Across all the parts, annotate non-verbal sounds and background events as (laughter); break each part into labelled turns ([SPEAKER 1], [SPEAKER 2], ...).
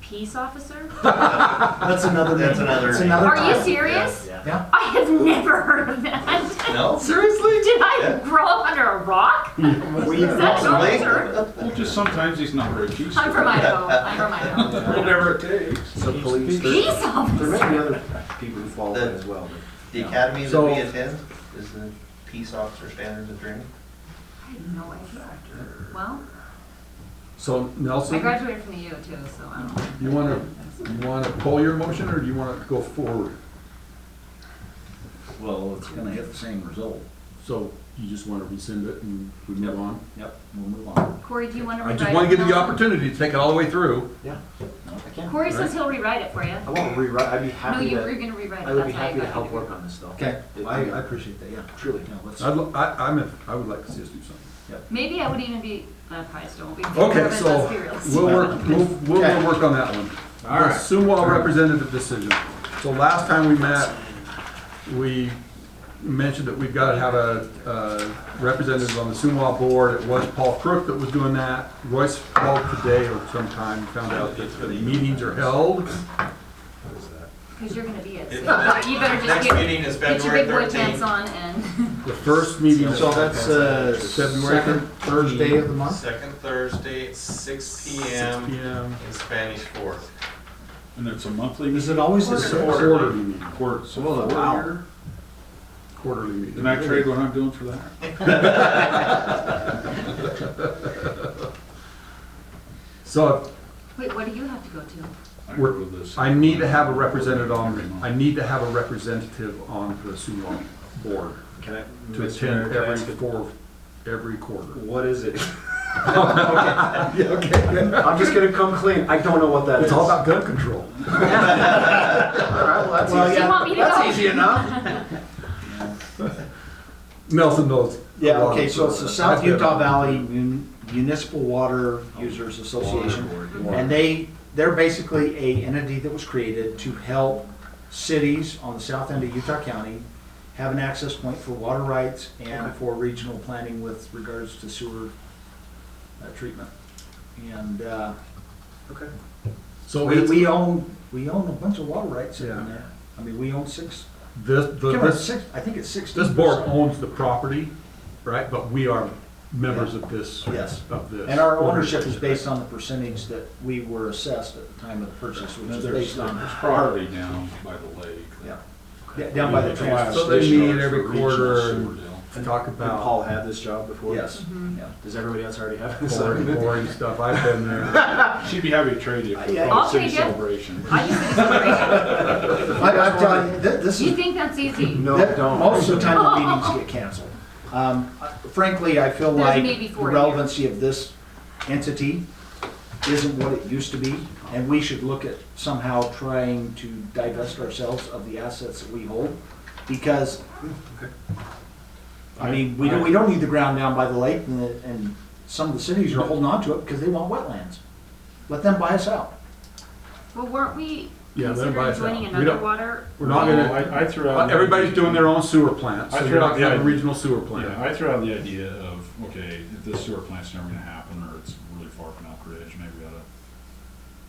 [SPEAKER 1] peace officer?
[SPEAKER 2] That's another.
[SPEAKER 3] That's
[SPEAKER 2] name.
[SPEAKER 3] another
[SPEAKER 2] It's
[SPEAKER 3] name.
[SPEAKER 2] another.
[SPEAKER 1] Are you
[SPEAKER 2] time.
[SPEAKER 1] serious?
[SPEAKER 3] Yeah.
[SPEAKER 2] Yeah.
[SPEAKER 1] I have never heard of that. (laughs)
[SPEAKER 3] No?
[SPEAKER 2] Seriously?
[SPEAKER 1] Did I
[SPEAKER 3] Yeah.
[SPEAKER 1] grow up under a rock?
[SPEAKER 2] We-
[SPEAKER 1] Is that
[SPEAKER 3] Possibly.
[SPEAKER 1] culture?
[SPEAKER 4] Well, just sometimes these number of G's.
[SPEAKER 1] I'm from Idaho. I'm from Idaho.
[SPEAKER 4] Whatever it takes.
[SPEAKER 5] So police, there,
[SPEAKER 1] Peace
[SPEAKER 5] there may
[SPEAKER 1] officer.
[SPEAKER 5] be other people who fall in as well.
[SPEAKER 3] The academy that
[SPEAKER 2] So-
[SPEAKER 3] we attend is the Peace Officer Standards of Training.
[SPEAKER 1] I have no idea. Well,
[SPEAKER 2] So
[SPEAKER 1] I
[SPEAKER 2] Nelson,
[SPEAKER 1] graduated from the U too, so I don't.
[SPEAKER 2] you wanna, you wanna pull your motion or do you wanna go forward?
[SPEAKER 6] Well, it's gonna hit the same result.
[SPEAKER 2] So you just wanna rescind it and we move
[SPEAKER 6] Yep.
[SPEAKER 2] on?
[SPEAKER 6] Yep. We'll move on.
[SPEAKER 1] Corey, do you want to
[SPEAKER 2] I
[SPEAKER 1] rewrite?
[SPEAKER 2] just wanna give you the
[SPEAKER 1] it?
[SPEAKER 2] opportunity to take it all the way through.
[SPEAKER 5] I can't.
[SPEAKER 1] Corey says he'll rewrite it for you.
[SPEAKER 5] I want to rewrite. I'd be
[SPEAKER 1] No,
[SPEAKER 5] happy
[SPEAKER 1] you were
[SPEAKER 5] to.
[SPEAKER 1] gonna rewrite it.
[SPEAKER 5] I would be
[SPEAKER 1] That's why I
[SPEAKER 5] happy to
[SPEAKER 1] got you
[SPEAKER 5] help
[SPEAKER 1] to
[SPEAKER 5] work
[SPEAKER 1] do it.
[SPEAKER 5] on this though.
[SPEAKER 6] Okay,
[SPEAKER 5] It-
[SPEAKER 6] I,
[SPEAKER 5] it-
[SPEAKER 6] I appreciate that, yeah.
[SPEAKER 5] Truly.
[SPEAKER 6] Yeah, let's,
[SPEAKER 2] I'd, li- I, I'm, a- I would like to see us do something.
[SPEAKER 1] Maybe I would even be, uh, probably still won't be.
[SPEAKER 2] Okay,
[SPEAKER 1] but
[SPEAKER 2] so
[SPEAKER 1] let's be realistic.
[SPEAKER 2] we'll work, we'll, we'll we'll work on that one.
[SPEAKER 4] All right.
[SPEAKER 2] The Suwa representative decision. So last time we met, we mentioned that we've got to have a, uh representative on the Suwa board. It was Paul Crook that was doing that. Royce called today or sometime, found out that the meetings are held.
[SPEAKER 1] Cause you're gonna be at, so you better just
[SPEAKER 3] Next
[SPEAKER 1] get,
[SPEAKER 3] meeting is
[SPEAKER 1] get your
[SPEAKER 3] February
[SPEAKER 1] big boy pants
[SPEAKER 3] 13th.
[SPEAKER 1] on and. (laughs)
[SPEAKER 2] The first meeting is
[SPEAKER 5] So that's uh,
[SPEAKER 2] February
[SPEAKER 5] second Thursday of the month.
[SPEAKER 3] Second Thursday, at six P
[SPEAKER 2] six
[SPEAKER 3] M.
[SPEAKER 2] PM.
[SPEAKER 3] in Spanish Fork.
[SPEAKER 4] And it's a monthly
[SPEAKER 5] Is
[SPEAKER 4] meeting.
[SPEAKER 5] it always the
[SPEAKER 2] It's a
[SPEAKER 5] same?
[SPEAKER 2] Quarterly meeting,
[SPEAKER 4] Quarter, so
[SPEAKER 5] Well,
[SPEAKER 4] four
[SPEAKER 5] wow.
[SPEAKER 4] year.
[SPEAKER 2] quarterly
[SPEAKER 4] Can I
[SPEAKER 2] meeting.
[SPEAKER 4] trade what I'm doing for that?
[SPEAKER 2] So
[SPEAKER 1] Wait, what do you have to go to?
[SPEAKER 4] I
[SPEAKER 2] We're-
[SPEAKER 4] go to this.
[SPEAKER 2] I need to have a representative on, I need to have a representative on the Suwan board
[SPEAKER 5] Can I?
[SPEAKER 2] to
[SPEAKER 5] Mr. Mayor,
[SPEAKER 2] attend
[SPEAKER 5] can I
[SPEAKER 2] every
[SPEAKER 5] ask a-
[SPEAKER 2] four, every quarter.
[SPEAKER 5] What is (laughs) it?
[SPEAKER 2] Okay.
[SPEAKER 5] I'm just gonna come clean. I don't know what that is.
[SPEAKER 2] It's all about gun control.
[SPEAKER 5] Alright, well, that's
[SPEAKER 1] Well,
[SPEAKER 5] easy.
[SPEAKER 1] you want me to
[SPEAKER 5] that's
[SPEAKER 1] go?
[SPEAKER 5] easy enough.
[SPEAKER 2] Nelson knows.
[SPEAKER 5] Yeah,
[SPEAKER 2] a lot
[SPEAKER 5] okay,
[SPEAKER 2] of-
[SPEAKER 5] so it's the South Utah Valley Mun- Municipal Water Users Association. And they, they're basically a entity that was created to help cities on the south end of Utah County have an access point for water rights and for regional planning with regards to sewer uh, treatment. And, uh,
[SPEAKER 2] So
[SPEAKER 5] we,
[SPEAKER 2] it's,
[SPEAKER 5] we own, we own a bunch of water rights in
[SPEAKER 2] Yeah.
[SPEAKER 5] there. I mean, we own six,
[SPEAKER 2] this, the-
[SPEAKER 5] can't remember,
[SPEAKER 2] this,
[SPEAKER 5] six, I think it's sixteen.
[SPEAKER 2] this board
[SPEAKER 5] percent.
[SPEAKER 2] owns the property, right, but we are members of this,
[SPEAKER 5] Yes.
[SPEAKER 2] of this.
[SPEAKER 5] And our ownership is based on the percentage that we were assessed at the time of the purchase, which
[SPEAKER 4] Now,
[SPEAKER 5] is
[SPEAKER 4] There's,
[SPEAKER 5] based
[SPEAKER 4] there's
[SPEAKER 5] on,
[SPEAKER 4] property down by the lake.
[SPEAKER 5] yeah, Yeah, down by the transfer.
[SPEAKER 2] So they
[SPEAKER 4] Discharge
[SPEAKER 2] meet every
[SPEAKER 4] for regional
[SPEAKER 2] quarter
[SPEAKER 4] sewer
[SPEAKER 2] and-
[SPEAKER 4] deal.
[SPEAKER 2] To talk about.
[SPEAKER 5] had this job before? Yes. Yeah. Does everybody else already have this?
[SPEAKER 2] Boring, boring stuff, I've been
[SPEAKER 4] (laughs)
[SPEAKER 2] there.
[SPEAKER 4] She'd be happy to trade you for
[SPEAKER 5] Yeah.
[SPEAKER 4] probably city
[SPEAKER 1] I'll trade you.
[SPEAKER 4] celebration.
[SPEAKER 1] I just think it's
[SPEAKER 5] I, I'm telling you, thi- this
[SPEAKER 1] great. You
[SPEAKER 5] is,
[SPEAKER 1] think that's easy?
[SPEAKER 5] thi- most of the time the meetings get canceled. Um, frankly, I feel
[SPEAKER 1] There's
[SPEAKER 5] like
[SPEAKER 1] maybe
[SPEAKER 5] the
[SPEAKER 1] four a year.
[SPEAKER 5] relevancy of this entity isn't what it used to be, and we should look at somehow trying to divest ourselves of the assets that we hold, because, I mean, we don't, we don't need the ground down by the lake, and, the- and some of the cities are holding on to it because they want wetlands. Let them buy us out.
[SPEAKER 1] Well, weren't we
[SPEAKER 2] Yeah, let 'em buy
[SPEAKER 1] considering
[SPEAKER 2] us out.
[SPEAKER 1] joining
[SPEAKER 2] We
[SPEAKER 1] another
[SPEAKER 2] don't-
[SPEAKER 1] water?
[SPEAKER 2] We're not
[SPEAKER 4] Well,
[SPEAKER 2] gonna,
[SPEAKER 4] I, I threw out.
[SPEAKER 2] Uh, Everybody's doing their own sewer plant, so
[SPEAKER 4] I threw
[SPEAKER 2] you're
[SPEAKER 4] out
[SPEAKER 2] not
[SPEAKER 4] the
[SPEAKER 2] gonna have a
[SPEAKER 4] idea.
[SPEAKER 2] regional sewer
[SPEAKER 4] Yeah,
[SPEAKER 2] plant.
[SPEAKER 4] I threw out the idea of, okay, if this sewer plant's never gonna happen, or it's really far from Elk Ridge, maybe we oughta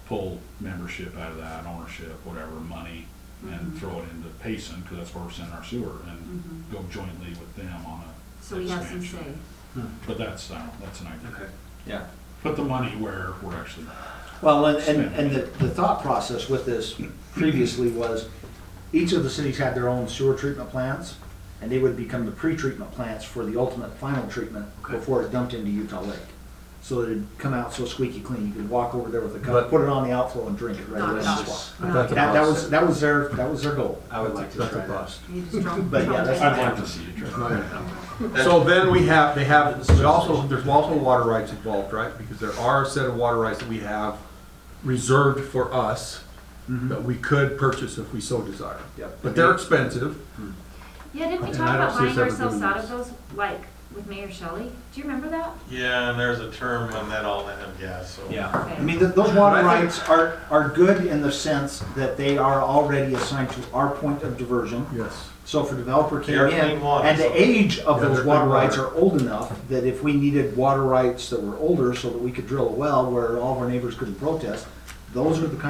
[SPEAKER 4] pull membership out of that, ownership, whatever, money,
[SPEAKER 1] Mm-hmm.
[SPEAKER 4] and throw it into Payson, cause that's where we're sending our sewer, and go jointly with them on a.
[SPEAKER 1] So we have some say.
[SPEAKER 4] expansion. But that's, I don't, that's an idea.
[SPEAKER 5] Yeah.
[SPEAKER 4] Put the money where we're actually,
[SPEAKER 5] Well, and, and, and the, the thought process with this previously was, each of the cities had their own sewer treatment plants, and they would become the pre-treatment plants for the ultimate final treatment before it dumped into Utah Lake. So it'd come out so squeaky clean, you could walk over there with a
[SPEAKER 2] But-
[SPEAKER 5] cup, put it on the outflow and drink it right
[SPEAKER 1] Not at
[SPEAKER 5] away. and
[SPEAKER 1] all.
[SPEAKER 5] just walk.
[SPEAKER 1] Not
[SPEAKER 2] That's
[SPEAKER 1] at
[SPEAKER 5] That, that
[SPEAKER 2] all.
[SPEAKER 5] was, that was their, that was their goal.
[SPEAKER 7] I would like to
[SPEAKER 2] That's a
[SPEAKER 7] try that.
[SPEAKER 2] bust.
[SPEAKER 1] all. You just drunk-
[SPEAKER 5] But yeah, that's-
[SPEAKER 4] I'd like to see it.
[SPEAKER 2] It's not gonna happen. So then we have, they have, we also, there's also water rights involved, right? Because there are a set of water rights that we have reserved for us that we could purchase if we so desire.
[SPEAKER 5] Yep.
[SPEAKER 2] But they're expensive.
[SPEAKER 1] Yeah, didn't we
[SPEAKER 2] And
[SPEAKER 1] talk
[SPEAKER 2] I don't
[SPEAKER 1] about
[SPEAKER 2] see us
[SPEAKER 1] buying
[SPEAKER 2] ever
[SPEAKER 1] ourselves
[SPEAKER 2] doing
[SPEAKER 1] out of
[SPEAKER 2] this.
[SPEAKER 1] those, like with Mayor Shelley? Do you remember that?
[SPEAKER 3] Yeah, and there's a term on that all end, yeah, so.
[SPEAKER 5] Yeah.
[SPEAKER 1] Okay.
[SPEAKER 5] I mean, th- those water
[SPEAKER 2] But I think-
[SPEAKER 5] rights are, are good in the sense that they are already assigned to our point of diversion.
[SPEAKER 2] Yes.
[SPEAKER 5] So if a developer came
[SPEAKER 3] They are
[SPEAKER 5] in,
[SPEAKER 3] clean water,
[SPEAKER 5] and
[SPEAKER 3] so-
[SPEAKER 5] the age of
[SPEAKER 2] Yeah,
[SPEAKER 5] those
[SPEAKER 2] they're
[SPEAKER 5] water
[SPEAKER 2] clean
[SPEAKER 5] rights
[SPEAKER 2] water.
[SPEAKER 5] are old enough that if we needed water rights that were older so that we could drill a well where all of our neighbors couldn't protest, those are the kind